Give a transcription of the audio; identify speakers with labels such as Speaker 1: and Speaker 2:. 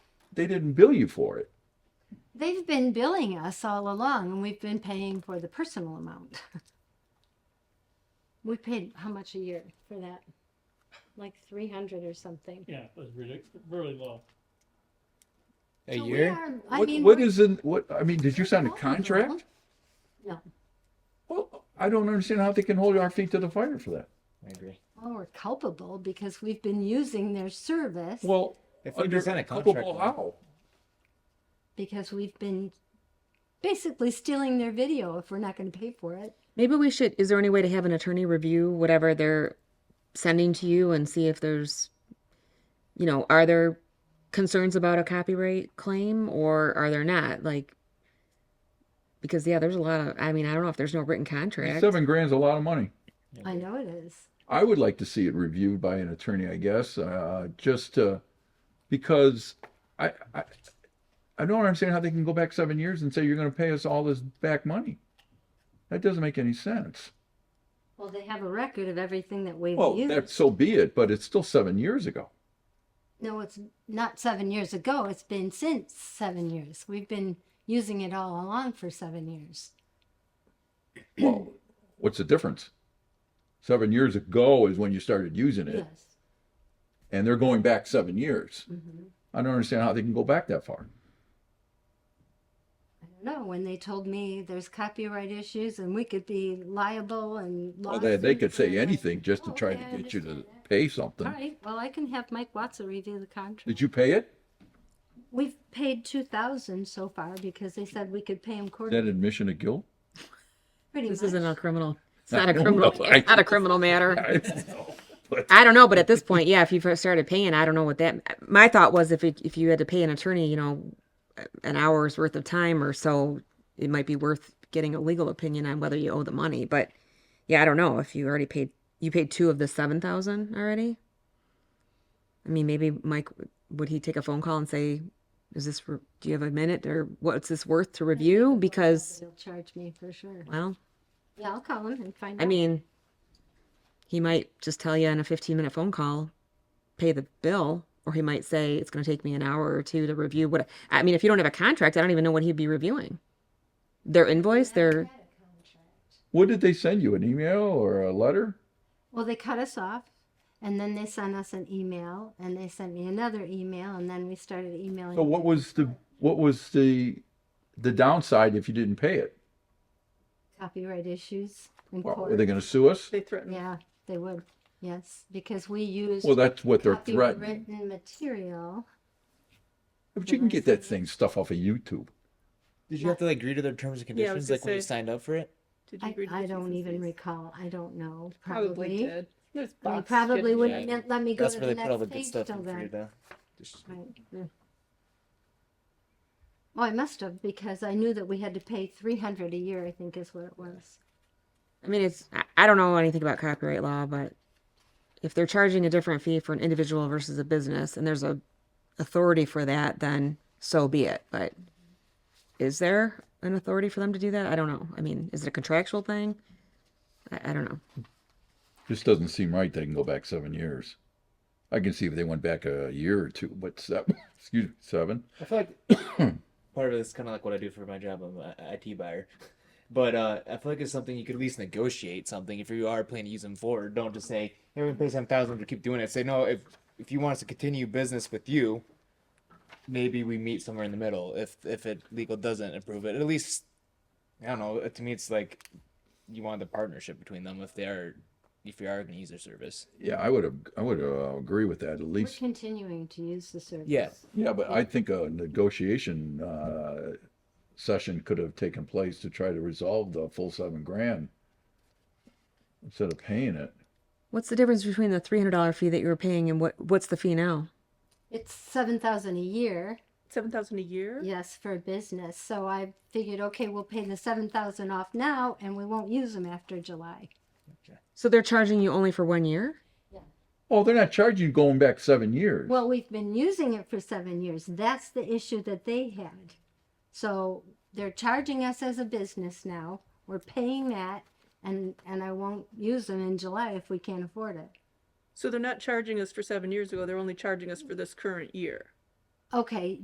Speaker 1: they didn't bill you for it.
Speaker 2: They've been billing us all along and we've been paying for the personal amount. We paid how much a year for that? Like three hundred or something.
Speaker 3: Yeah, it was really, really low.
Speaker 4: A
Speaker 2: So we
Speaker 4: year?
Speaker 2: are- I
Speaker 1: What,
Speaker 2: mean.
Speaker 1: what
Speaker 2: we're-
Speaker 1: is in what? I mean, did you sign a contract?
Speaker 2: No.
Speaker 1: Well, I don't understand how they can hold our feet to the fire for that.
Speaker 4: I agree.
Speaker 2: Well, we're culpable because we've been using their service
Speaker 1: Well,
Speaker 4: If we
Speaker 1: under-
Speaker 4: present a contract,
Speaker 1: culpable
Speaker 4: though.
Speaker 1: how?
Speaker 2: because we've been basically stealing their video if we're not going to pay for it.
Speaker 5: Maybe we should. Is there any way to have an attorney review whatever they're sending to you and see if there's, you know, are there concerns about a copyright claim or are there not? Like, because yeah, there's a lot of. I mean, I don't know if there's no written contract.
Speaker 1: Seven grand's a lot of money.
Speaker 2: I know it is.
Speaker 1: I would like to see it reviewed by an attorney, I guess, uh, just uh, because I, I I don't understand how they can go back seven years and say you're going to pay us all this back money. That doesn't make any sense.
Speaker 2: Well, they have a record of everything that we've
Speaker 1: Well, that,
Speaker 2: used.
Speaker 1: so be it, but it's still seven years ago.
Speaker 2: No, it's not seven years ago. It's been since seven years. We've been using it all along for seven years.
Speaker 1: Well, what's the difference? Seven years ago is when you started using it,
Speaker 2: Yes.
Speaker 1: and they're going back seven years.
Speaker 2: hmm
Speaker 1: I don't understand how they can go back that far.
Speaker 2: I don't know. When they told me there's copyright issues and we could be liable and
Speaker 1: Well, they, they could
Speaker 2: lawsuits, and
Speaker 1: say
Speaker 2: I'm like,
Speaker 1: anything just to
Speaker 2: "Oh,
Speaker 1: try
Speaker 2: okay, I
Speaker 1: to get you to
Speaker 2: understand
Speaker 1: pay
Speaker 2: that."
Speaker 1: something.
Speaker 2: All right. Well, I can have Mike Watson review the contract.
Speaker 1: Did you pay it?
Speaker 2: We've paid two thousand so far because they said we could pay them
Speaker 1: Is that
Speaker 2: quarterly.
Speaker 1: admission of guilt?
Speaker 2: Pretty
Speaker 5: This
Speaker 2: much.
Speaker 5: isn't a criminal. It's
Speaker 1: I
Speaker 5: not a
Speaker 1: don't
Speaker 5: criminal.
Speaker 1: know.
Speaker 5: It's not a criminal matter.
Speaker 1: I don't know, but-
Speaker 5: I don't know, but at this point, yeah, if you first started paying, I don't know what that. My thought was if it, if you had to pay an attorney, you know, an hour's worth of time or so, it might be worth getting a legal opinion on whether you owe the money. But yeah, I don't know if you already paid. You paid two of the seven thousand already. I mean, maybe Mike would he take a phone call and say, "Is this? re- Do you have a minute or what's this worth to review?" Because
Speaker 2: They'll charge me for sure.
Speaker 5: well,
Speaker 2: Yeah, I'll call them and find out.
Speaker 5: I mean, he might just tell you in a 15 minute phone call, pay the bill, or he might say it's going to take me an hour or two to review what I mean. If you don't have a contract, I don't even know what he'd be reviewing. Their invoice, their
Speaker 1: What did they send you? An email or a letter?
Speaker 2: Well, they cut us off and then they sent us an email and they sent me another email and then we started emailing.
Speaker 1: So what was the what was the the downside if you didn't pay it?
Speaker 2: Copyright issues in
Speaker 1: Well,
Speaker 2: court.
Speaker 1: are they going to sue us?
Speaker 6: They threatened.
Speaker 2: Yeah, they would, yes, because we used
Speaker 1: Well, that's what they're threatening.
Speaker 2: copywritten material.
Speaker 1: But you can get that thing stuff off of YouTube.
Speaker 4: Did you have to like agree to their terms and
Speaker 6: Yeah, I
Speaker 4: conditions
Speaker 6: was
Speaker 4: like when you
Speaker 6: gonna say-
Speaker 4: signed up for it?
Speaker 6: Did you
Speaker 2: I,
Speaker 6: agree to
Speaker 2: I
Speaker 6: the
Speaker 2: don't
Speaker 6: T's and
Speaker 2: even
Speaker 6: C's?
Speaker 2: recall, I don't know,
Speaker 6: Probably
Speaker 2: probably.
Speaker 6: did. There's
Speaker 2: They
Speaker 6: box
Speaker 2: probably
Speaker 6: fifty.
Speaker 2: wouldn't have let me go
Speaker 4: That's
Speaker 2: to
Speaker 4: where
Speaker 2: the
Speaker 4: they put all the
Speaker 2: next
Speaker 4: good
Speaker 2: page
Speaker 4: stuff
Speaker 2: till
Speaker 4: in for you
Speaker 2: then.
Speaker 4: to just
Speaker 2: Right. Well, I must have because I knew that we had to pay three hundred a year, I think is what it was.
Speaker 5: I mean, it's I- I don't know anything about copyright law, but if they're charging a different fee for an individual versus a business, and there's a authority for that, then so be it. But is there an authority for them to do that? I don't know. I mean, is it a contractual thing? I, I don't know.
Speaker 1: This doesn't seem right. They can go back seven years. I can see if they went back a year or two, but seven. Excuse me, seven.
Speaker 4: I feel like part of it's kind of like what I do for my job. I'm an IT buyer, but uh, I feel like it's something you could at least negotiate something if you are planning to use them forward. Don't just say, "Hey, we're gonna pay some thousand to keep doing it." Say, "No, if if you want us to continue business with you, maybe we meet somewhere in the middle. If if it legal doesn't approve it, at least I don't know. To me, it's like you want the partnership between them if they are if you are gonna use their service.
Speaker 1: Yeah, I would have. I would uh, agree with that at
Speaker 2: We're
Speaker 1: least.
Speaker 2: continuing to use the service.
Speaker 4: Yeah.
Speaker 1: Yeah, but I think a negotiation uh, session could have taken place to try to resolve the full seven grand instead of paying it.
Speaker 5: What's the difference between the three hundred dollar fee that you were paying and what what's the fee now?
Speaker 2: It's seven thousand a year,
Speaker 6: Seven thousand a year?
Speaker 2: yes, for a business. So I figured, okay, we'll pay the seven thousand off now and we won't use them after July.
Speaker 5: So they're charging you only for one year?
Speaker 1: Oh, they're not charging you going back seven years.
Speaker 2: Well, we've been using it for seven years. That's the issue that they had. So they're charging us as a business now. We're paying that and, and I won't use them in July if we can't afford it.
Speaker 6: So they're not charging us for seven years ago, they're only charging us for this current year.
Speaker 2: Okay,